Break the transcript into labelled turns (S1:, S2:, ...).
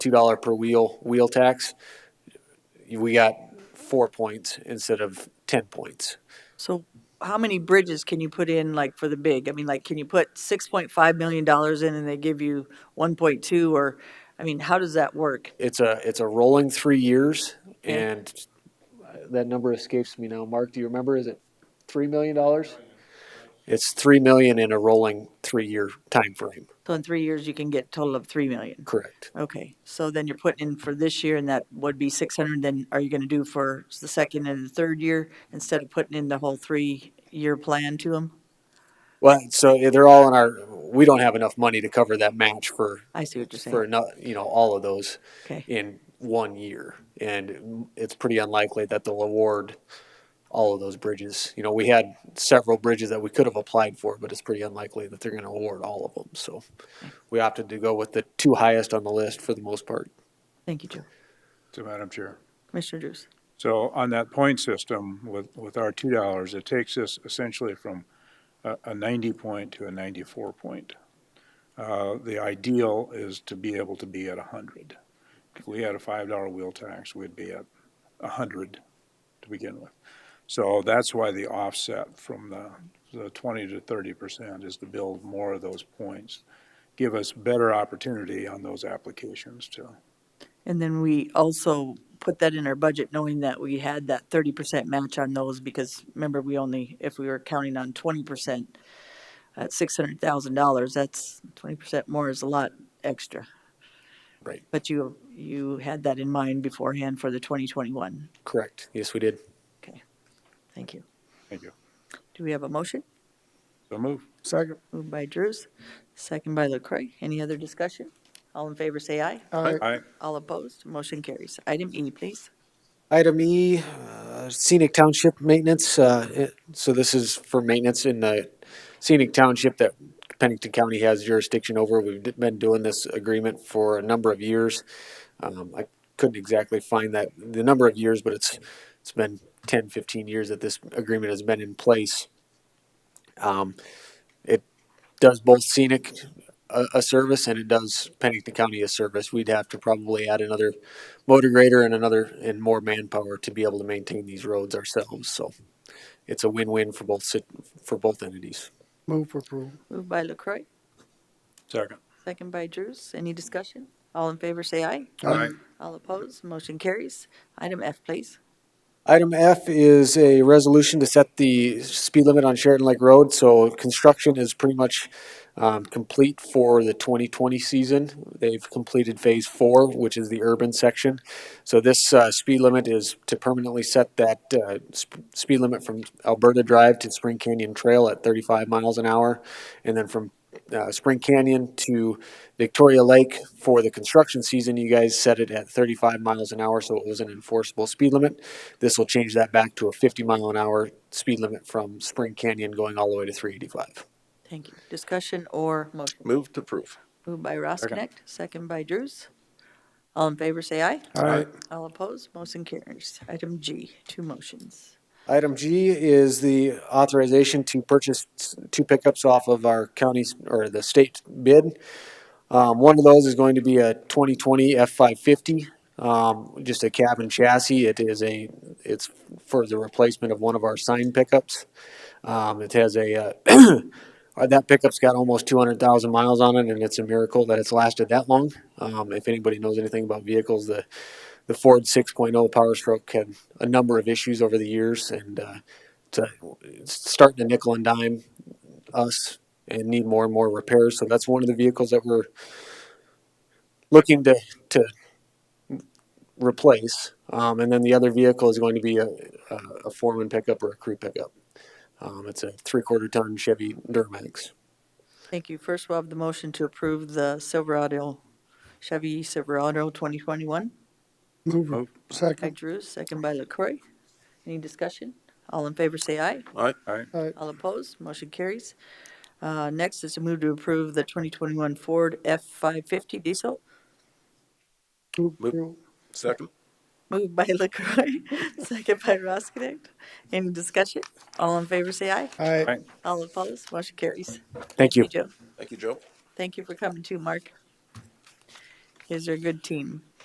S1: two dollar per wheel wheel tax, we got four points instead of ten points.
S2: So how many bridges can you put in, like, for the big? I mean, like, can you put six point five million dollars in and they give you one point two, or, I mean, how does that work?
S1: It's a it's a rolling three years,
S2: Okay.
S1: and that number escapes me now. Mark, do you remember? Is it three million dollars? It's three million in a rolling three year time frame.
S2: So in three years, you can get a total of three million.
S1: Correct.
S2: Okay, so then you're putting in for this year, and that would be six hundred, then are you gonna do for the second and the third year, instead of putting in the whole three-year plan to them?
S1: Well, so they're all in our. We don't have enough money to cover that match for
S2: I see what you're
S1: for
S2: saying,
S1: not you know all of those.
S2: okay.
S1: in one year. And it's pretty unlikely that they'll award all of those bridges. You know, we had several bridges that we could have applied for, but it's pretty unlikely that they're going to award all of them. So we opted to go with the two highest on the list for the most part.
S2: Thank you, Joe.
S3: to Madam Chair.
S2: Commissioner Drews.
S3: So on that point system with, with our two dollars, it takes us essentially from a, a ninety point to a ninety-four point. Uh, the ideal is to be able to be at a hundred. If we had a five dollar wheel tax, we'd be at a hundred to begin with. So that's why the offset from the, the twenty to thirty percent is to build more of those points. Give us better opportunity on those applications to
S2: And then we also put that in our budget, knowing that we had that thirty percent match on those, because remember, we only, if we were counting on twenty percent at six hundred thousand dollars, that's twenty percent more is a lot extra.
S1: Right.
S2: But you, you had that in mind beforehand for the twenty twenty-one.
S1: Correct. Yes, we did.
S2: Thank you.
S3: Thank you.
S2: Do we have a motion?
S3: So move.
S4: Second.
S2: Moved by Drews, second by LaCroy. Any other discussion? All in favor, say aye.
S4: Aye.
S3: Aye.
S2: All opposed, motion carries. Item E, please.
S1: Item E, uh, scenic township maintenance. uh, it- So this is for maintenance in the scenic township that Pennington County has jurisdiction over. We've d- been doing this agreement for a number of years. Um, I couldn't exactly find that, the number of years, but it's, it's been 10, 15 years that this agreement has been in place. Um, It does both scenic uh, a, a service and it does Pennington County a service. We'd have to probably add another motor grader and another and more manpower to be able to maintain these roads ourselves. So it's a win-win for both sit- for both entities.
S4: Move for approval.
S2: Moved by LaCroy,
S3: Second.
S2: Second by Drews. Any discussion? All in favor, say aye.
S4: Aye.
S2: All opposed, motion carries. Item F, please.
S1: Item F is a resolution to set the speed limit on Sheraton Lake Road. So construction is pretty much um, complete for the 2020 season. They've completed Phase 4, which is the urban section. So this uh, speed limit is to permanently set that uh, sp- speed limit from Alberta Drive to Spring Canyon Trail at 35 miles an hour. And then from uh, Spring Canyon to Victoria Lake for the construction season, you guys set it at 35 miles an hour, so it was an enforceable speed limit. This will change that back to a 50 mile an hour speed limit from Spring Canyon going all the way to 385.
S2: Thank you. Discussion or motion?
S5: Move to approve.
S2: Moved by Ross Connect, second by Drews. All in favor, say aye.
S4: Aye.
S2: All opposed, motion carries. Item G, two motions.
S1: Item G is the authorization to purchase two pickups off of our county's or the state bid. Um, one of those is going to be a 2020 F550, um, just a cab and chassis. It is a, it's for the replacement of one of our sign pickups. Um, it has a, uh, uh, that pickup's got almost 200,000 miles on it, and it's a miracle that it's lasted that long. Um, if anybody knows anything about vehicles, the the Ford 6.0 Power Stroke had a number of issues over the years, and uh, it's, uh, it's starting to nickel and dime us and need more and more repairs. So that's one of the vehicles that we're looking to to replace. Um, and then the other vehicle is going to be a, a, a foreman pickup or a crew pickup. Um, it's a three-quarter ton Chevy Duramax.
S2: Thank you. First, we'll have the motion to approve the Silverado, Chevy Silverado 2021
S4: Move. for-
S3: Move.
S2: by
S4: Second.
S2: Drews, second by LaCroy. Any discussion? All in favor, say aye.
S5: Aye.
S3: Aye.
S4: Aye.
S2: All opposed, motion carries. Uh, Next is to move to approve the 2021 Ford F-550 diesel.
S4: Move for approval.
S5: Second.
S2: Moved by LaCroy, second by Ross Connect. Any discussion? All in favor, say aye.
S4: Aye.
S3: Aye.
S2: All opposed, motion carries.
S1: Thank you.
S2: Joe,
S5: Thank you, Joe.
S2: thank you for coming too, Mark. is they're a good team.